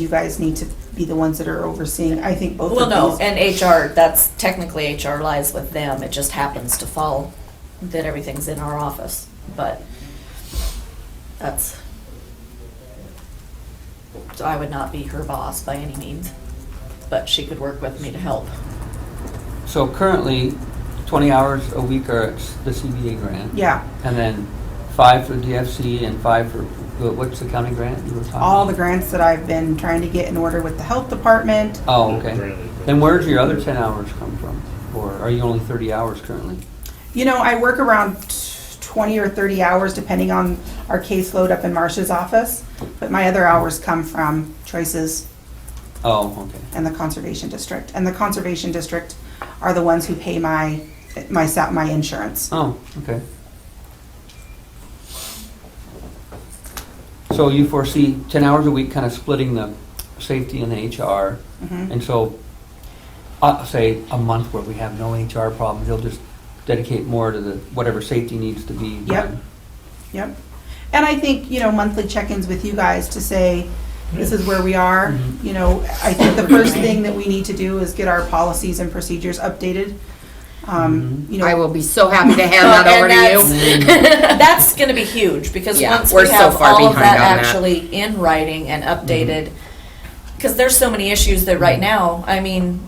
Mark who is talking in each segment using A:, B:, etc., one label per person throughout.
A: you guys need to be the ones that are overseeing, I think both
B: Well, no,
A: of these.
B: and HR, that's technically HR lies with them. It just happens to fall that everything's in our office, but that's. So I would not be her boss by any means, but she could work with me to help.
C: So currently, 20 hours a week are s- the CBA grant?
A: Yeah,
C: And then five for DFC and five for, wh- what's the county grant you were talking?
A: all the
C: about?
A: grants that I've been trying to get in order with the health department,
C: Oh, okay. Then where's your other 10 hours come from? Or are you only 30 hours currently?
A: You know, I work around twenty or thirty hours depending on our caseload up in Marsh's office, but my other hours come from Choices
C: Oh, okay.
A: and the Conservation District. And the Conservation District are the ones who pay my, my, sa- my insurance.
C: Oh, okay. So you foresee 10 hours a week kind of splitting the safety and the HR?
A: Mhm.
C: And so, uh, say, a month where we have no HR problems, they'll just dedicate more to the, whatever safety needs to be
A: Yep.
C: done.
A: Yep. And I think, you know, monthly check-ins with you guys to say, this is where we are.
C: Mhm.
A: You know, I think the first thing that we need to do is get our policies and procedures updated. Um, you know.
D: I will be so happy to hand that over to you. Mm.
B: And that's- That's gonna be huge, because
D: Yeah,
B: once
D: we're
B: we
D: so
B: have
D: far
B: all of that
D: behind on that. Mm-hmm.
B: actually in writing and updated, because there's so many issues that right now, I mean,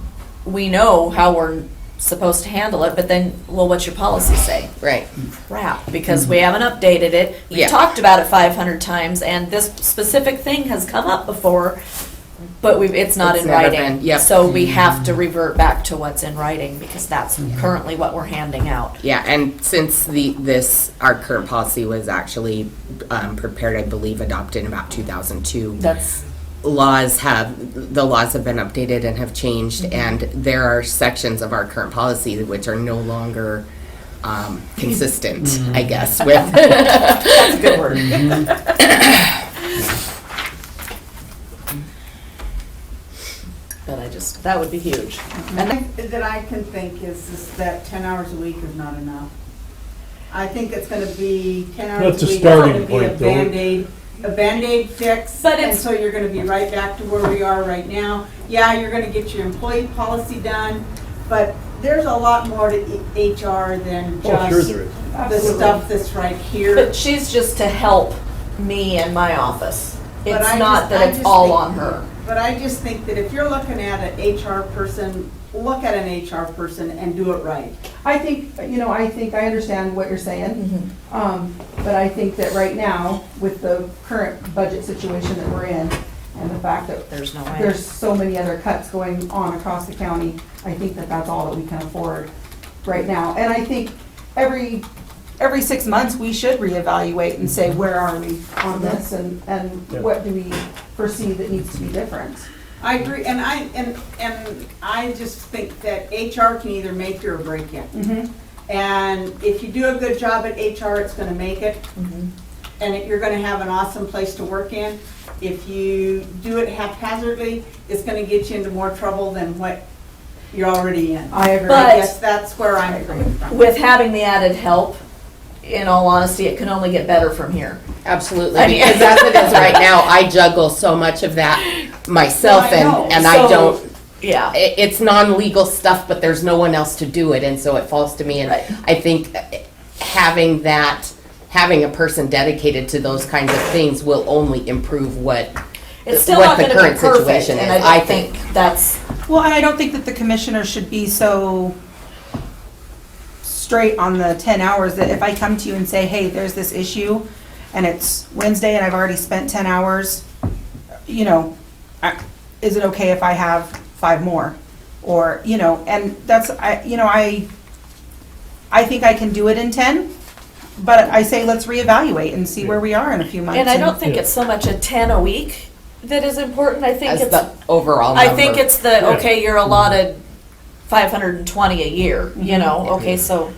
B: we know how we're supposed to handle it, but then, well, what's your policy say?
D: Right.
B: crap because we haven't updated it. We
D: Mm-hmm. Yeah.
B: have talked about it 500 times, and this specific thing has come up before, but we've, it's not
D: It's
B: in
D: never
B: writing.
D: been- yep. Mm-hmm.
B: So we have to revert back to what's in writing because that's currently what we're handing out.
D: Yeah, and since the, this, our current policy was actually um, prepared, I believe, adopted in about 2002.
B: That's
D: laws have, the laws have been updated and have changed, and there are sections of our current policy which are no longer um, consistent, I guess, with,
B: a good word. But I just, that would be huge. And I-
E: that I can think is, is that ten hours a week is not enough. I think it's gonna be, ten hours
F: That's
E: a
F: a
E: week is gonna
F: starting
E: be a
F: point, though.
E: Band-Aid, a Band-Aid fix,
B: But
E: and
B: it's-
E: so you're gonna be right back to where we are right now. Yeah, you're gonna get your employee policy done, but there's a lot more to E- HR than
F: Oh, sure
E: just
F: there is.
E: the stuff that's right here.
B: But she's just to help me and my office.
E: But
B: It's
E: I
B: not
E: just- I
B: that it's
E: just
B: all
E: think-
B: on her.
E: But I just think that if you're looking at an HR person, look at an HR person and do it right.
A: I think, you know, I think I understand what you're saying.
B: Mm-hmm.
A: Um, but I think that right now, with the current budget situation that we're in, and the fact that
B: There's no way.
A: there's so many other cuts going on across the county, I think that that's all that we can afford right now. And I think every, every six months, we should reevaluate and say, where are we on this? And, and
F: Yeah.
A: what do we foresee that needs to be different?
E: I agree, and I, and, and I just think that HR can either make you or break you. And if you do a good job at HR, it's gonna make it, and it- you're gonna have an awesome place to work in. If you do it haphazardly, it's gonna get you into more trouble than what you're already in.
A: I agree.
B: But-
E: I guess that's where I'm coming from.
B: with having the added help, in all honesty, it can only get better from here.
D: absolutely,
B: I mean-
D: because as it is right now, I juggle so much of that myself,
E: No, I know.
D: and, and I
B: So-
D: don't,
B: Yeah.
D: it, it's non-legal stuff, but there's no one else to do it, and so it falls to me, and
B: Right.
D: I think uh, having that, having a person dedicated to those kinds of things will only improve what,
B: It's still
D: what
B: not
D: the
B: gonna be
D: current
B: perfect,
D: situation is,
B: and I don't think that's,
A: Well, and I don't think that the commissioner should be so straight on the ten hours that if I come to you and say, hey, there's this issue, and it's Wednesday and I've already spent ten hours, you know, I- is it okay if I have five more? Or, you know, and that's, I, you know, I, I think I can do it in ten, but I say, let's reevaluate and see where we are in a few months.
B: and I don't think
F: Yeah.
B: it's so much a ten a week that is important, I think
D: as
B: it's,
D: the overall
B: I think
D: number.
B: it's the, okay, you're allotted five hundred and twenty a year, you know, okay, so,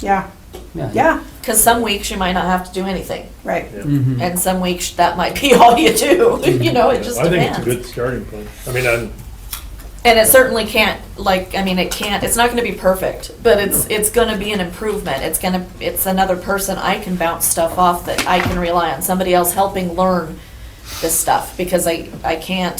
A: Yeah, yeah,
B: cause some weeks you might not have to do anything,
A: right.
C: Mhm.
B: and some weeks that might be all you do, you know, it just
F: I think it's
B: depends.
F: a good starting point. I mean, I'm,
B: And it certainly can't, like, I mean, it can't, it's not gonna be perfect, but it's, it's gonna be an improvement. It's gonna, it's another person I can bounce stuff off that I can rely on, somebody else helping learn this stuff, because I, I can't